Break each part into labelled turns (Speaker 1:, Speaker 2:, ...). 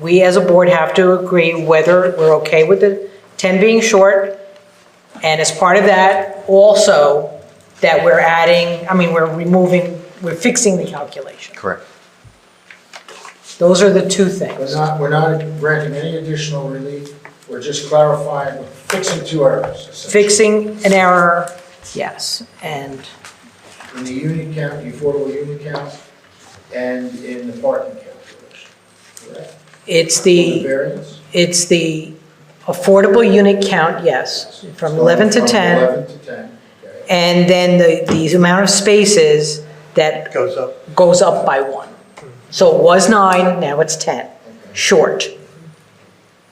Speaker 1: we as a board have to agree whether we're okay with the 10 being short. And as part of that, also, that we're adding, I mean, we're removing, we're fixing the calculation.
Speaker 2: Correct.
Speaker 1: Those are the two things.
Speaker 3: We're not, we're not granting any additional relief, we're just clarifying, fixing two errors. essentially.
Speaker 1: Fixing an error, yes, and
Speaker 3: In the unit count, the affordable unit count, and in the parking calculation, correct?
Speaker 1: it's
Speaker 3: The
Speaker 1: the,
Speaker 3: variance?
Speaker 1: it's the affordable unit count, yes, from 11 to
Speaker 3: From
Speaker 1: 10.
Speaker 3: 11 to 10, okay.
Speaker 1: And then the, the amount of spaces that
Speaker 4: Goes up.
Speaker 1: goes up by one. So it was nine, now it's 10, short.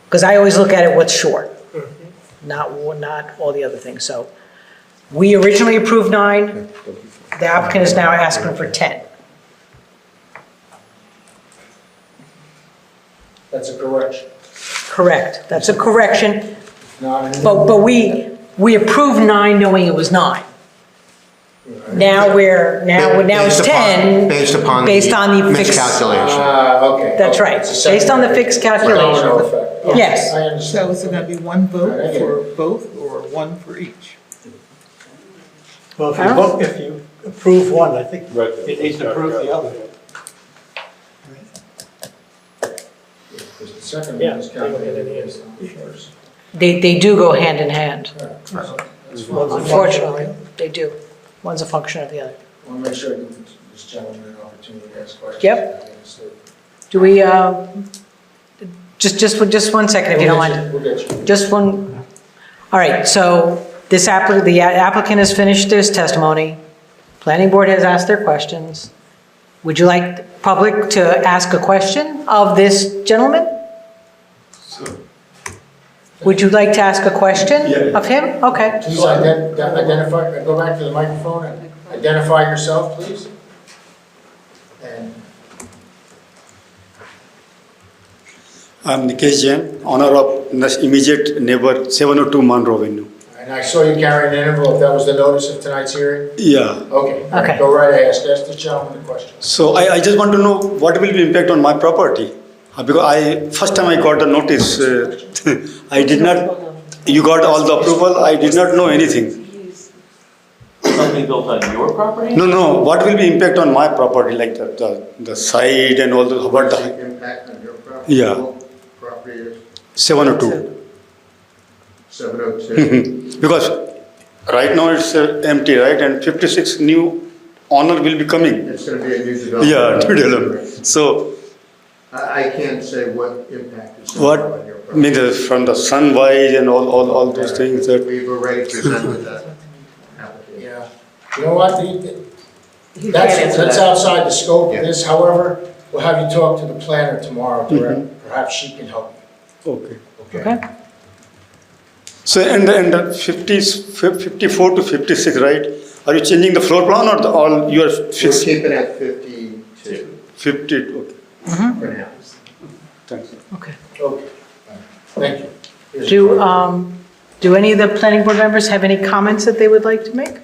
Speaker 1: Because I always look at it what's short, not, wa- not all the other things. So we originally approved nine, the applicant is now asking for 10.
Speaker 3: That's a correction,
Speaker 1: Correct, that's a correction,
Speaker 3: not an.
Speaker 1: but, but we, we approved nine knowing it was nine. Now we're, now, now it's
Speaker 2: Based upon-
Speaker 1: 10.
Speaker 2: Based upon.
Speaker 1: Based on the fixed-
Speaker 2: Miscalculation.
Speaker 3: Ah, okay.
Speaker 1: That's right.
Speaker 3: It's a
Speaker 1: Based on the
Speaker 3: secondary.
Speaker 1: fixed calculation.
Speaker 3: Domino effect. Okay,
Speaker 1: Yes.
Speaker 3: I
Speaker 4: So
Speaker 3: understand.
Speaker 4: is it gonna be one vote
Speaker 3: Alright.
Speaker 4: for both or one for each?
Speaker 5: Well, if you vote, if you approve one, I think
Speaker 6: Right.
Speaker 5: it needs to approve the other.
Speaker 3: Because the second one is calculated based on the first.
Speaker 1: They, they do go hand in hand,
Speaker 3: All right, so that's fine.
Speaker 5: One's a function of the
Speaker 1: unfortunately,
Speaker 5: other.
Speaker 1: they do. One's a function of the other.
Speaker 3: I want to make sure I give this gentleman an opportunity to ask questions.
Speaker 1: Yep. Do we, uh, just, just, one- just one second if you don't mind.
Speaker 3: We'll get you.
Speaker 1: Just one, all right, so this applicant, the applicant has finished his testimony. Planning board has asked their questions. Would you like the public to ask a question of this gentleman? Would you like to ask a question
Speaker 6: Yeah.
Speaker 1: of him? Okay.
Speaker 3: Please ident- identify, uh, go back to the microphone and identify yourself, please. And
Speaker 7: I'm Nikesh Jain, owner of nes- immediate neighbor 702 Monroe Avenue.
Speaker 3: and I saw you carrying an envelope, that was the notice of tonight's hearing?
Speaker 7: Yeah.
Speaker 3: Okay, all
Speaker 1: Okay.
Speaker 3: right, go right ahead, ask ask the gentleman the question.
Speaker 7: So I, I just want to know what will be impact on my property Uh, because I first time I got the notice, uh, I did not. You got all the approval. I did not know anything.
Speaker 8: Something built on your property?
Speaker 7: No, no. What will be impact on my property, like the the, the side and all the what the
Speaker 3: impact on your property?
Speaker 7: Yeah.
Speaker 3: Property is
Speaker 7: 702?
Speaker 3: 702.
Speaker 7: Because right now it's uh, empty, right? And 56 new owner will be coming.
Speaker 3: It's going to be a new
Speaker 7: Yeah, new development. So.
Speaker 3: I can't say what impact is
Speaker 7: What, means uh, from the sun wise and all, all, all those things that,
Speaker 3: We've already presented that Yeah, you know what, The- the- that's, that's outside the scope of this, however, we'll have you talk to the planner tomorrow, direct. perhaps she can help
Speaker 7: okay.
Speaker 3: you.
Speaker 1: Okay.
Speaker 7: So, and, and the fifties, fif- fifty-four to fifty-six, right? Are you changing the floor plan or the, all, you are fixed?
Speaker 3: keep it at fifty-two
Speaker 7: Fifty, okay,
Speaker 3: for now.
Speaker 7: thanks.
Speaker 1: Okay.
Speaker 3: Okay, thank you. Here's
Speaker 1: Do,
Speaker 3: the-
Speaker 1: um, do any of the planning board members have any comments that they would like to make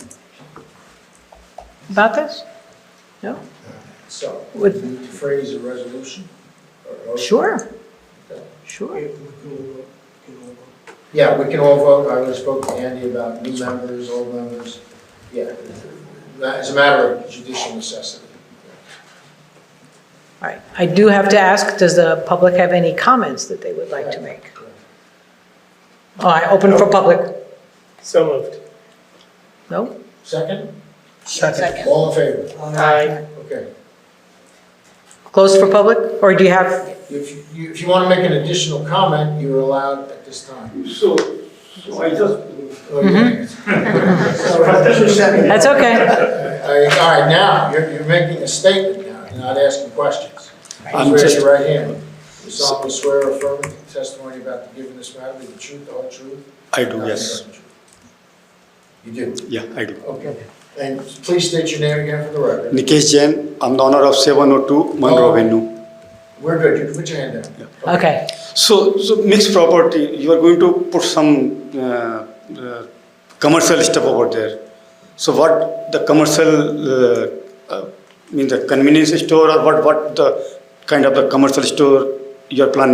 Speaker 1: about this? No?
Speaker 3: So,
Speaker 1: would-
Speaker 3: you need to phrase a resolution? or- or-
Speaker 1: Sure. Sure.
Speaker 3: Yeah, we can all vote, I already spoke to Andy about new members, old members, yeah. As a matter of judicial necessity.
Speaker 1: All right. I do have to ask, does the public have any comments that they would like to make? All right, open for public.
Speaker 4: So moved.
Speaker 1: No?
Speaker 3: Second,
Speaker 4: Second.
Speaker 3: all in favor?
Speaker 4: Aye.
Speaker 3: Okay.
Speaker 1: Closed for public, or do you have,
Speaker 3: If you, if you want to make an additional comment, you're allowed at this time.
Speaker 6: So, so I just,
Speaker 3: Oh,
Speaker 7: Mm-hmm.
Speaker 3: yeah.
Speaker 1: that's okay.
Speaker 3: Uh, All right, now, you're, you're making a statement now, you're not asking questions.
Speaker 7: I'm
Speaker 3: Raise
Speaker 7: just-
Speaker 3: your right hand. You solemnly swear or affirm that the testimony about the given this matter, be the truth, the whole truth?
Speaker 7: I
Speaker 3: and
Speaker 7: do,
Speaker 3: nothing
Speaker 7: yes,
Speaker 3: but the truth. You do?
Speaker 7: yeah, I do.
Speaker 3: Okay. And please state your name again for the record.
Speaker 7: Nikesh Jain, I'm the owner of seven oh two Monroe
Speaker 3: Oh.
Speaker 7: Avenue.
Speaker 3: We're good, you can put your hand down.
Speaker 1: Okay.
Speaker 7: So, so mixed property, you are going to put some, uh, uh, commercial stuff over there. So what the commercial, uh, uh, mean the convenience store or what, what the kind of the commercial store you are planning